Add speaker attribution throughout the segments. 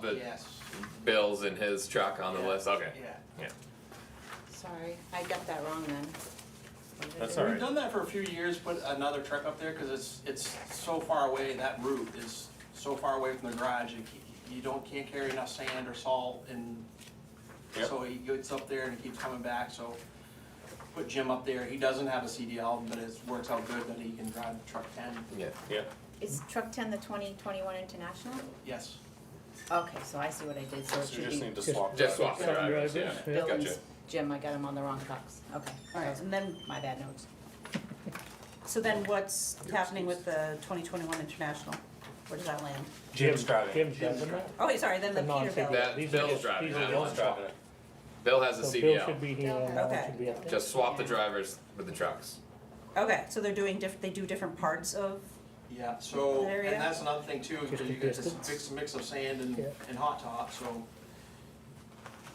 Speaker 1: the
Speaker 2: Yes,
Speaker 1: bills in his truck on the
Speaker 2: Yeah.
Speaker 1: list. Okay.
Speaker 2: yeah.
Speaker 3: Sorry, I got that wrong then.
Speaker 1: That's all
Speaker 2: We've
Speaker 1: right.
Speaker 2: done that for a few years, put another truck up there, cause it's, it's so far away, that route is so far away from the garage, you, c- you don't, can't carry enough sand or salt and
Speaker 1: Yep.
Speaker 2: so he gets up there and he keeps coming back, so put Jim up there, he doesn't have a CDL, but it works out good that he can drive the truck ten,
Speaker 1: Yeah. Yeah.
Speaker 3: Is truck ten the twenty twenty-one international?
Speaker 2: yes.
Speaker 3: Okay, so I see what I did, so it
Speaker 4: So you
Speaker 3: should
Speaker 4: just
Speaker 3: be
Speaker 4: need to
Speaker 5: Just-
Speaker 4: swap.
Speaker 1: Just
Speaker 4: drivers.
Speaker 1: swap the drivers. Yeah.
Speaker 5: Drivers,
Speaker 1: Gotcha.
Speaker 3: Bill's, Jim, I got him on the wrong box, okay.
Speaker 6: Alright,
Speaker 3: so
Speaker 6: and then,
Speaker 3: My bad notes.
Speaker 6: so then what's happening with the twenty twenty-one international? Where does that land?
Speaker 4: Jim's driving.
Speaker 5: Jim's driving that?
Speaker 6: Oh, wait, sorry, then the
Speaker 5: The non-favorite.
Speaker 6: Peterbilt.
Speaker 1: That
Speaker 5: These are
Speaker 1: Bill's
Speaker 5: just-
Speaker 1: driving
Speaker 5: these are
Speaker 1: that
Speaker 5: Bill's
Speaker 1: one.
Speaker 4: driving it.
Speaker 1: Bill has a
Speaker 5: So Bill
Speaker 1: CDL.
Speaker 5: should be here, and Alan should be up there.
Speaker 1: Just swap the drivers with the trucks.
Speaker 6: Okay, so they're doing diff, they do different parts of,
Speaker 2: Yeah, so,
Speaker 6: There
Speaker 2: and
Speaker 6: you go.
Speaker 2: that's another thing too,
Speaker 5: Just
Speaker 2: because
Speaker 5: the
Speaker 2: you get this
Speaker 5: distance.
Speaker 2: mix, mix of sand and,
Speaker 5: Yeah.
Speaker 2: and hot top, so.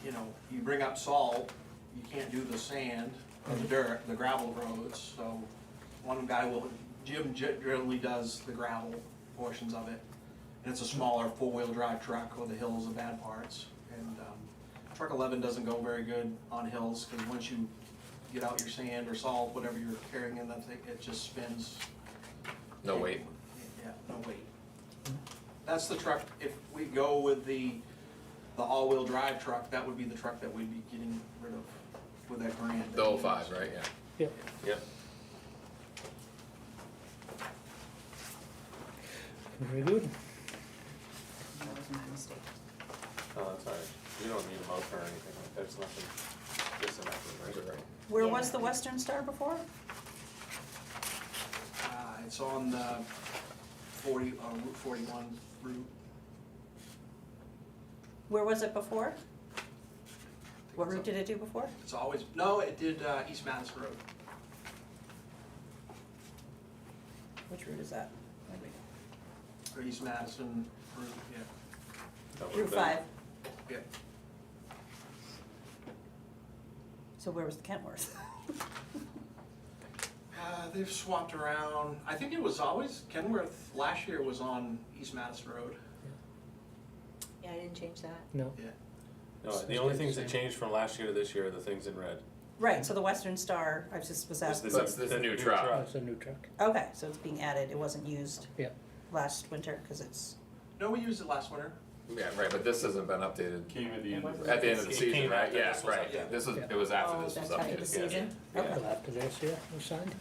Speaker 2: You know, you bring up salt, you can't do the sand, or
Speaker 5: Mm-hmm.
Speaker 2: the dirt, the gravel roads, so one guy will, Jim generally does the gravel portions of it. And it's a smaller four-wheel drive truck, or the hills are bad parts, and, um, truck eleven doesn't go very good on hills, because once you get out your sand or salt, whatever you're carrying in that thing, it just spins
Speaker 1: No wait.
Speaker 2: yeah, no wait. That's the truck, if we go with the, the all-wheel drive truck, that would be the truck that we'd be getting rid of with that grant.
Speaker 1: The 05, right? Yeah.
Speaker 5: Yep.
Speaker 4: Yep.
Speaker 5: Very good.
Speaker 3: That was my mistake.
Speaker 4: No, that's all right. You don't need a motor or anything. like that. There's nothing. Just an
Speaker 1: Those
Speaker 4: active
Speaker 1: are right.
Speaker 6: where
Speaker 3: Yeah.
Speaker 6: was the Western Star before?
Speaker 2: Uh, it's on the forty, uh, Route forty-one route.
Speaker 6: Where was it before? What route did it do before?
Speaker 2: It's always, no, it did, uh, East Madison Road.
Speaker 6: Which route is that?
Speaker 2: Or East Madison Route, yeah.
Speaker 4: That would've
Speaker 6: Route
Speaker 4: been-
Speaker 6: five,
Speaker 2: Yeah,
Speaker 6: so where was the Kentworth?
Speaker 2: Uh, they've swapped around, I think it was always, Kenworth last year was on East Madison Road.
Speaker 3: Yeah, I didn't change that.
Speaker 5: No,
Speaker 4: No, the only things that changed from last year to this year are the things in red.
Speaker 6: Right, so the Western Star, I was just, was
Speaker 4: It's
Speaker 6: that,
Speaker 4: the
Speaker 1: That's
Speaker 4: new-
Speaker 1: the
Speaker 4: the
Speaker 1: new
Speaker 4: new
Speaker 1: truck.
Speaker 4: truck.
Speaker 5: that's a new truck.
Speaker 6: okay, so it's being added, it wasn't used
Speaker 5: Yeah.
Speaker 6: last winter, cause it's,
Speaker 2: No, we used it last winter.
Speaker 1: Yeah, right. But this hasn't been updated
Speaker 7: Came at the end of
Speaker 1: at the end of
Speaker 4: It
Speaker 1: the
Speaker 4: came
Speaker 1: season, right?
Speaker 4: after
Speaker 1: Yeah,
Speaker 4: this was
Speaker 1: right.
Speaker 2: updated.
Speaker 1: This was
Speaker 5: Yeah.
Speaker 1: it was after
Speaker 3: Oh,
Speaker 1: this was
Speaker 3: that's after
Speaker 1: updated.
Speaker 3: the
Speaker 1: yeah.
Speaker 3: season?
Speaker 6: okay,
Speaker 5: Well, after this, yeah, we signed.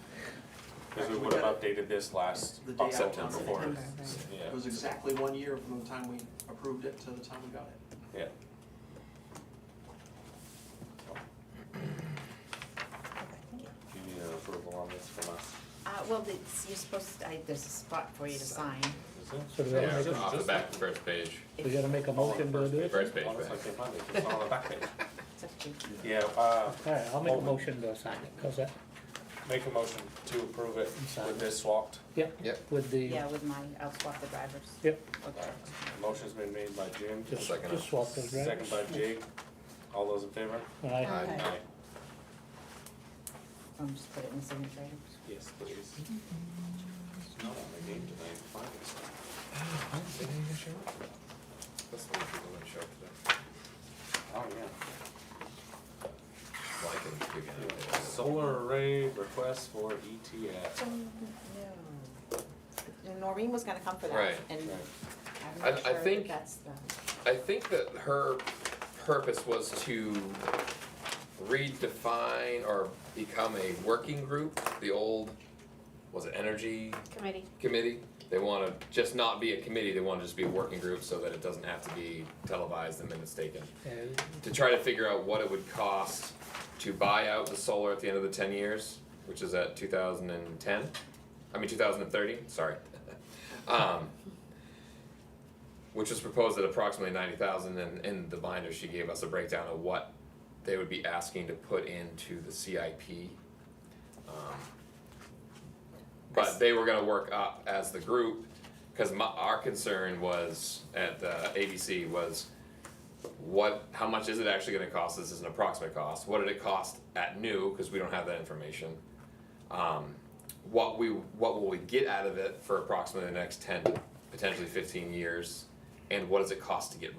Speaker 4: Because we would have updated this last
Speaker 2: The day after
Speaker 4: September
Speaker 2: September.
Speaker 4: fourth.
Speaker 3: right.
Speaker 4: Yeah.
Speaker 2: It was exactly one year from the time we approved it to the time we got it.
Speaker 6: okay, thank you.
Speaker 4: You need an approval on this from us.
Speaker 3: Uh, well, it's, you're supposed to, I, there's a spot for you to sign.
Speaker 4: Is it?
Speaker 5: So do we
Speaker 1: Yeah,
Speaker 5: gotta
Speaker 1: it's
Speaker 4: it's
Speaker 5: make,
Speaker 4: just-
Speaker 1: off the back of the first page.
Speaker 5: a- we gotta make a
Speaker 4: All on the
Speaker 5: motion to
Speaker 4: first
Speaker 5: do
Speaker 4: page.
Speaker 5: it?
Speaker 1: First page,
Speaker 4: All on the
Speaker 1: back.
Speaker 4: second page. It's all on the back page.
Speaker 3: It's up to you.
Speaker 4: Yeah, uh,
Speaker 5: Alright, I'll make a
Speaker 4: Hold it.
Speaker 5: motion to sign it, how's that?
Speaker 4: make a motion to approve it with this swapped.
Speaker 5: Yep.
Speaker 1: Yep.
Speaker 5: With the,
Speaker 3: Yeah, with my, I'll swap the drivers.
Speaker 5: yep,
Speaker 3: Okay.
Speaker 4: Motion's been made by Jim,
Speaker 5: just,
Speaker 1: Second.
Speaker 5: just swap those
Speaker 4: second
Speaker 5: drivers.
Speaker 4: by Jake. All those in favor?
Speaker 5: Aye.
Speaker 3: Okay.
Speaker 4: Aye.
Speaker 3: Um, just put it in the signature items.
Speaker 4: Yes, please. Not on my game tonight, fine.
Speaker 1: That's the one people didn't show up
Speaker 4: Oh, yeah.
Speaker 1: today. Like it, we got
Speaker 4: Yeah.
Speaker 1: it.
Speaker 4: Solar array request for E ETF.
Speaker 3: Um, No. Noreen was gonna come for that,
Speaker 1: Right.
Speaker 3: and
Speaker 4: Right.
Speaker 3: I'm
Speaker 1: I- I
Speaker 3: not sure that
Speaker 1: think-
Speaker 3: that's the.
Speaker 1: I think that her purpose was to redefine or become a working group, the old, was it energy
Speaker 8: Committee.
Speaker 1: committee? They wanna just not be a committee, they wanna just be a working group so that it doesn't have to be televised and then it's taken.
Speaker 5: And
Speaker 1: To try to figure out what it would cost to buy out the solar at the end of the ten years, which is at two thousand and ten, I mean two thousand and thirty, sorry. Um, which was proposed at approximately ninety thousand, and in the binder, she gave us a breakdown of what they would be asking to put into the CIP. Um, But they were gonna work up as the group, cause my, our concern was, at the ABC, was what, how much is it actually gonna cost, this is an approximate cost, what did it cost at new, cause we don't have that information. Um, what we, what will we get out of it for approximately the next ten, potentially fifteen years, and what does it cost to get